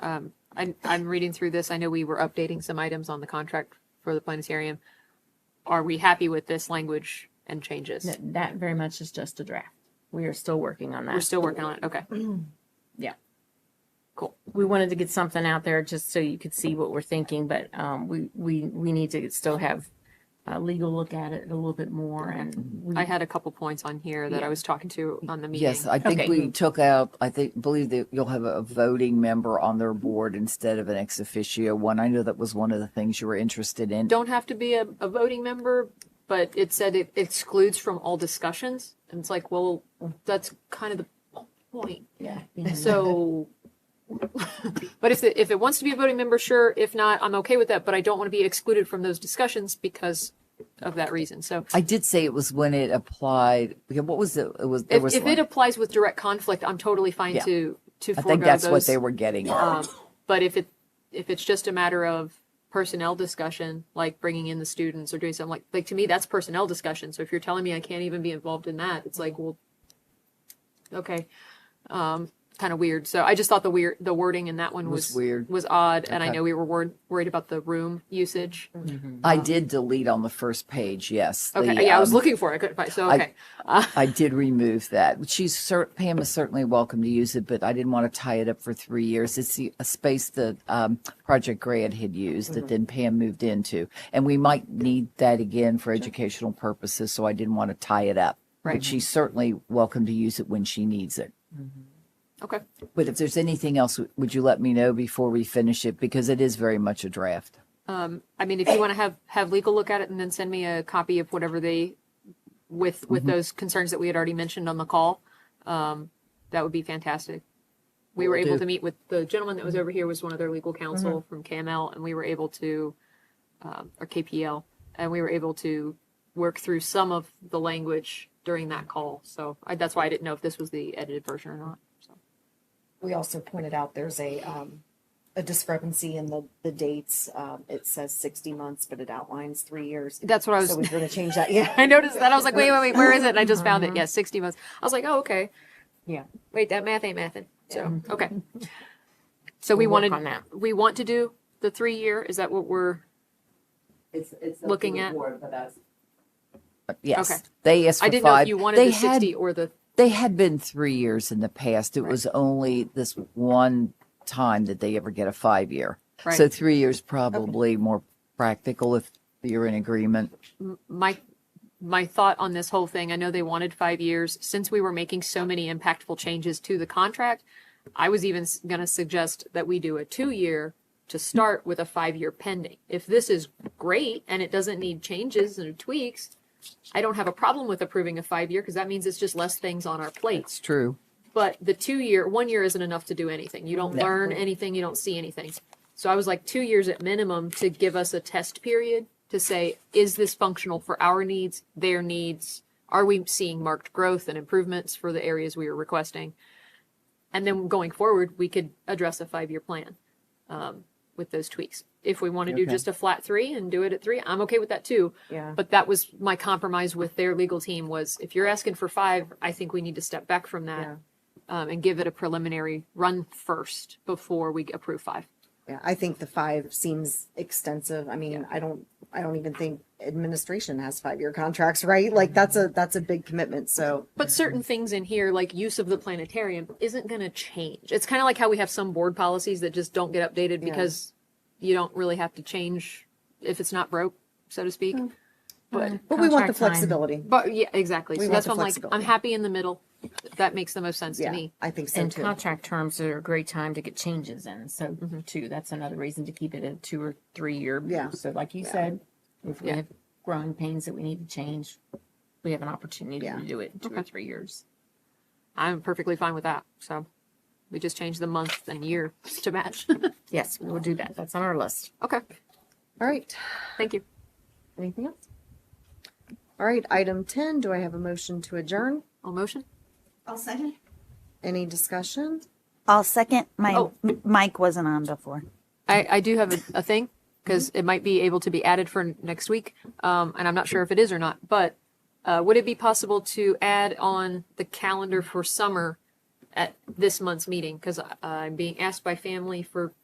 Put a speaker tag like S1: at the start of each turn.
S1: Um, I, I'm reading through this. I know we were updating some items on the contract for the planetarium. Are we happy with this language and changes?
S2: That, that very much is just a draft. We are still working on that.
S1: We're still working on it. Okay.
S2: we wanted to get something out there just so you could see what we're thinking, but um, we, we, we need to still have a legal look at it a little bit more and we,
S1: I had a couple points on here that I was talking to on the meeting.
S3: Yes, I think
S2: Okay.
S3: we took out, I think, believe that you'll have a voting member on their board instead of an ex officio one. I know that was one of the things you were interested in.
S1: Don't have to be a, a voting member, but it said it excludes from all discussions. And it's like, well, that's kind of the point.
S2: yeah.
S1: So, but if, it- if it wants to be a voting member, sure. If not, I'm okay with that, but I don't want to be excluded from those discussions because of that reason. So
S3: I did say it was when it applied, because what was it, it was, there
S1: if,
S3: was
S1: if
S3: one.
S1: it applies with direct conflict, I'm totally fine
S3: Yeah.
S1: to, to
S3: I
S1: forego
S3: think that's what
S1: those.
S3: they were getting at.
S1: Um, but if it, if it's just a matter of personnel discussion, like bringing in the students or doing something like, like to me, that's personnel discussion. So if you're telling me I can't even be involved in that, it's like, well, okay. Um, kind of weird. So I just thought the weird, the wording in that one
S3: Was
S1: was,
S3: weird.
S1: was odd. And I
S3: Okay.
S1: know we were worried, worried about the room usage.
S3: I did delete on the first page, yes.
S1: Okay.
S3: the,
S1: yeah. I was
S3: um,
S1: looking for it. I couldn't find, so,
S3: I-
S1: okay.
S3: I did remove that. She's cer- Pam is certainly welcome to use it, but I didn't want to tie it up for three years. It's the, a space that um, Project Grad had used
S1: Mm-hmm.
S3: that then Pam moved into, and we might need that again for educational purposes. So I didn't want to tie it up.
S1: Right.
S3: But she's certainly welcome to use it when she needs it.
S1: Okay.
S3: But if there's anything else, w- would you let me know before we finish it because it is very much a draft.
S1: Um, I mean, if you want to have, have legal look at it and then send me a copy of whatever they, with, with
S3: Mm-hmm.
S1: those concerns that we had already mentioned on the call, um, that would be fantastic. We were
S3: Will
S1: able
S3: do. Mm-hmm.
S1: to meet with, the gentleman that was over here was one of their legal counsel from KML and we were able to, um, or KPL, and we were able to work through some of the language during that call. So I, that's why I didn't know if this was the edited version or not. So,
S4: We also pointed out there's a, um, a discrepancy in the, the dates. Um, it says sixty months, but it outlines three years.
S1: that's what I was.
S4: So we're gonna change that, yeah.
S1: I noticed that. I was like, wait, wait, wait, where is it? And I just
S3: Mm-hmm.
S1: found it. Yeah, 60 months. I was like, oh, okay.
S2: Yeah.
S1: Wait, that math ain't mathin'. So, okay. So we
S2: We'll work
S1: wanted,
S2: on that.
S1: we want to do the three year. Is that what we're,
S3: It's, it's
S1: to Looking the at-
S3: Uh, Yes,
S1: Okay.
S3: they asked for
S1: I didn't know
S3: five.
S1: if you wanted
S3: they
S1: the
S3: had
S1: 60 or the,
S3: they had been three years in the past. It was only this one time that they ever get a five year.
S1: Right.
S3: So three years probably more practical if you're in agreement.
S1: my, my thought on this whole thing. I know they wanted five years. Since we were making so many impactful changes to the contract, I was even going to suggest that we do a two year to start with a five year pending. If this is great and it doesn't need changes and tweaks, I don't have a problem with approving a five year because that means it's just less things on our plates.
S3: It's true.
S1: But the two year, one year isn't enough to do anything. You don't
S3: No.
S1: learn anything, you don't see anything. So I was like, two years at minimum to give us a test period to say, is this functional for our needs, their needs? Are we seeing marked growth and improvements for the areas we are requesting? And then going forward, we could address a five year plan um, with those tweaks. If we want to do
S3: Okay.
S1: just a flat three and do it at three, I'm okay with that too.
S2: Yeah.
S1: But that was my compromise with their legal team was if you're asking for five, I think we need to step back from that um, and give it a preliminary run first before we approve five.
S4: Yeah, I think the five seems extensive. I mean, I don't, I don't even think administration has five-year contracts, right? Like, that's a, that's a big commitment, so.
S1: But certain things in here, like use of the planetarium, isn't going to change. It's kind of like how we have some board policies that just don't get updated
S4: Yeah.
S1: because you don't really have to change if it's not broke, so to speak.
S4: Mm-hmm.
S1: But
S4: But we want the
S2: Contract time.
S4: flexibility.
S1: but yeah, exactly. so
S4: We want
S1: that's why
S4: the
S1: I'm like, I'm
S4: flexibility.
S1: happy in the middle. That makes the most sense to
S4: Yeah,
S1: me.
S4: I think so
S2: And
S4: too. Mm-hmm.
S2: contract terms are a great time to get changes in. So too, that's another reason to keep it a two or three year.
S4: Yeah.
S2: So like you said, if we
S1: Yeah.
S2: have growing pains that we need to change, we have an opportunity
S4: Yeah.
S2: to do it in two or three years.
S1: I'm perfectly fine with that. So we just change the month and year to match.
S2: Yes, we will do that. That's on our list.
S1: okay.
S4: All right,
S1: Thank you.
S2: Anything else?
S4: all right, item ten, do I have a motion to adjourn?
S1: All motion?
S5: I'll second.
S4: Any discussion?
S6: I'll second. My
S1: Oh.
S6: m- mic wasn't on before.
S1: I, I do have a, a thing because it might be able to be added for next week. Um, and I'm not sure if it is or not, but uh, would it be possible to add on the calendar for summer at this month's meeting? Because I'm being asked by family for